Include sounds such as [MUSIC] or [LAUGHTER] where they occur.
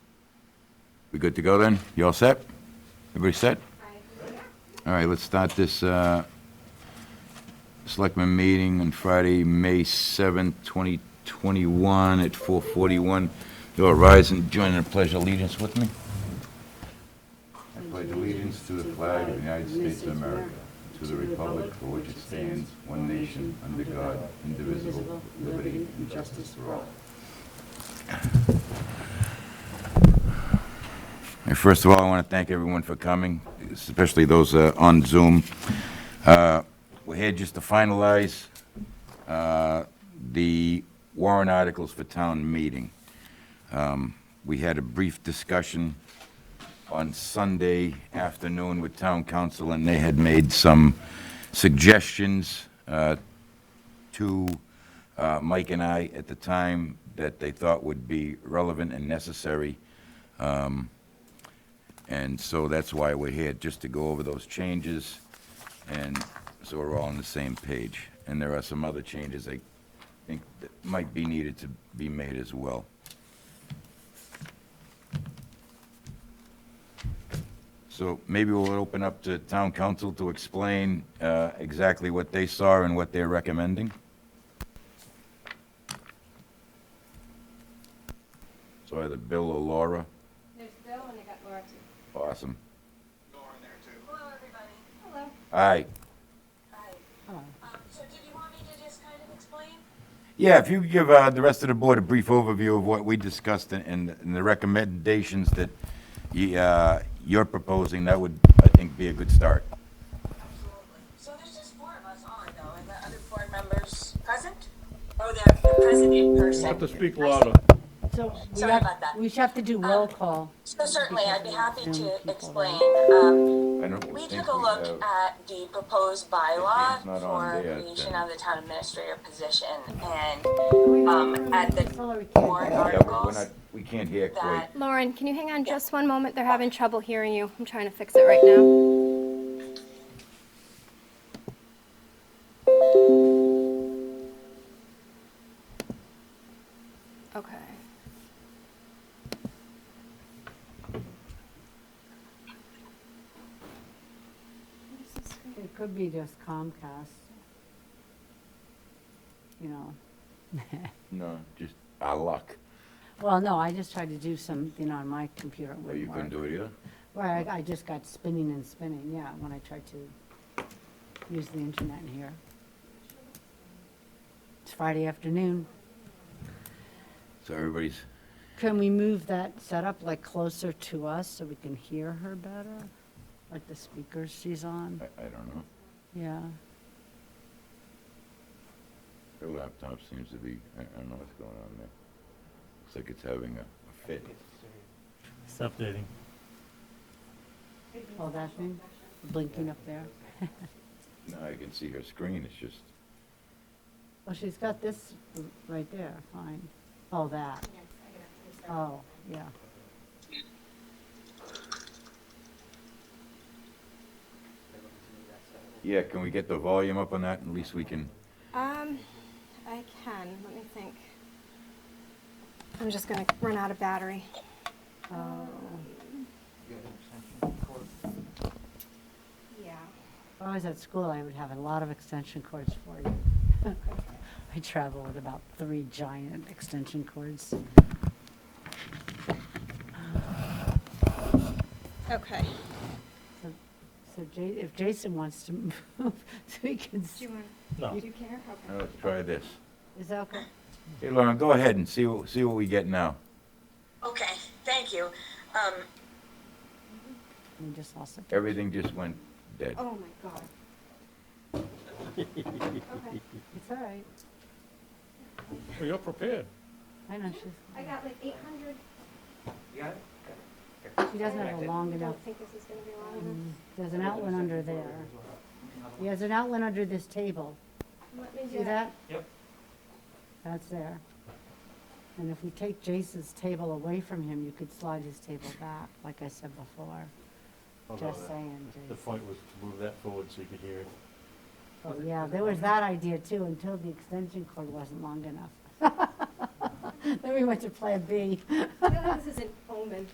We good to go then? You all set? Everybody set? All right, let's start this uh, Selectmen meeting on Friday, May 7th, 2021 at 4:41. You all rise and join in the pledge of allegiance with me. I pledge allegiance to the flag of the United States of America, to the republic for which it stands, one nation, under God, indivisible, with liberty and justice for all. And First of all, I want to thank everyone for coming, especially those uh, on Zoom. Uh, We're here just to finalize uh, the warrant articles for town meeting. Um, We had a brief discussion on Sunday afternoon with town council, and they had made some suggestions uh, to uh, Mike and I at the time that they thought would be relevant and necessary. And so that's why we're here, just to go over those changes, and so we're all on the same page. And there are some other changes I think that might be needed to be made as well. So maybe we'll open up to town council to explain uh, exactly what they saw and what they're recommending. So either Bill or Laura, There's Bill and I got Laura too. awesome. Hello, everybody. Hello. Aye. Hi. Um, So did you want me to just kind of explain? Yeah, if you could give uh, the rest of the board a brief overview of what we discussed and- and and the recommendations that you, uh, you're proposing, that would, I think, be a good start. Absolutely. So there's just four of us on though, and the other board members present? Oh, they're, they're present in person. Have to speak louder. So we Sorry have, about that. Um, we should have to do roll call. So certainly, I'd be happy Zoom to people explain. Um, I don't We think took a look have- at the proposed bylaw it's not on for there, creation then- of the town administrator position and, um, at the warrant Yeah, we're- we're articles not, we can't hear quite. that, Lauren, can you hang on just one moment? They're having trouble hearing you. I'm trying to fix it right now. Okay. It could be just Comcast. You know, No, just our luck. well, no, I just tried to do something on my computer. it Or Oh, you wouldn't couldn't work. do it either? Right, I I just got spinning and spinning, yeah, when I tried to use the internet in here. It's Friday afternoon. So everybody's, Can we move that setup like closer to us so we can hear her better? Like the speakers she's on, I, I don't know. yeah. Their laptop seems to be, I, I don't know what's going on there. Looks like it's having a a fit. It's updating. Oh, that thing, blinking up there. [LAUGHS] Now I can see her screen, it's just, Well, she's got this r- right there, fine. Oh, that. Oh, yeah. yeah, can we get the volume up on that? At least we can. Um, I can. Let me think. I'm just gonna run out of battery. Oh, Yeah. If I was at school, I would have a lot of extension cords for you. [LAUGHS] I travel with about three giant extension cords. Okay. So so Ja- if Jason wants to [LAUGHS] move, so we can, s- Do you want, No. do you care? Now let's try this. is that okay? Hey, Lauren, go ahead and see what, see what we get now. okay, thank you. Um, We just lost it. Everything just went dead. Oh, my God. Okay. It's all right. Well, you're prepared. I know, she's, I got like 800. she doesn't have a long I enough, don't think this is gonna be long enough. mm, there's an outlet under there. Yeah, there's an outlet under this table. Let me See that? Yep. That's there. And if we take Jason's table away from him, you could slide his table back, like I said before. Just saying, The Jason. point was to move that forward so you could hear it. Oh, Yeah, there was that idea too, until the extension cord wasn't long enough. [LAUGHS] Then we went to Plan B. I feel like this is an omen.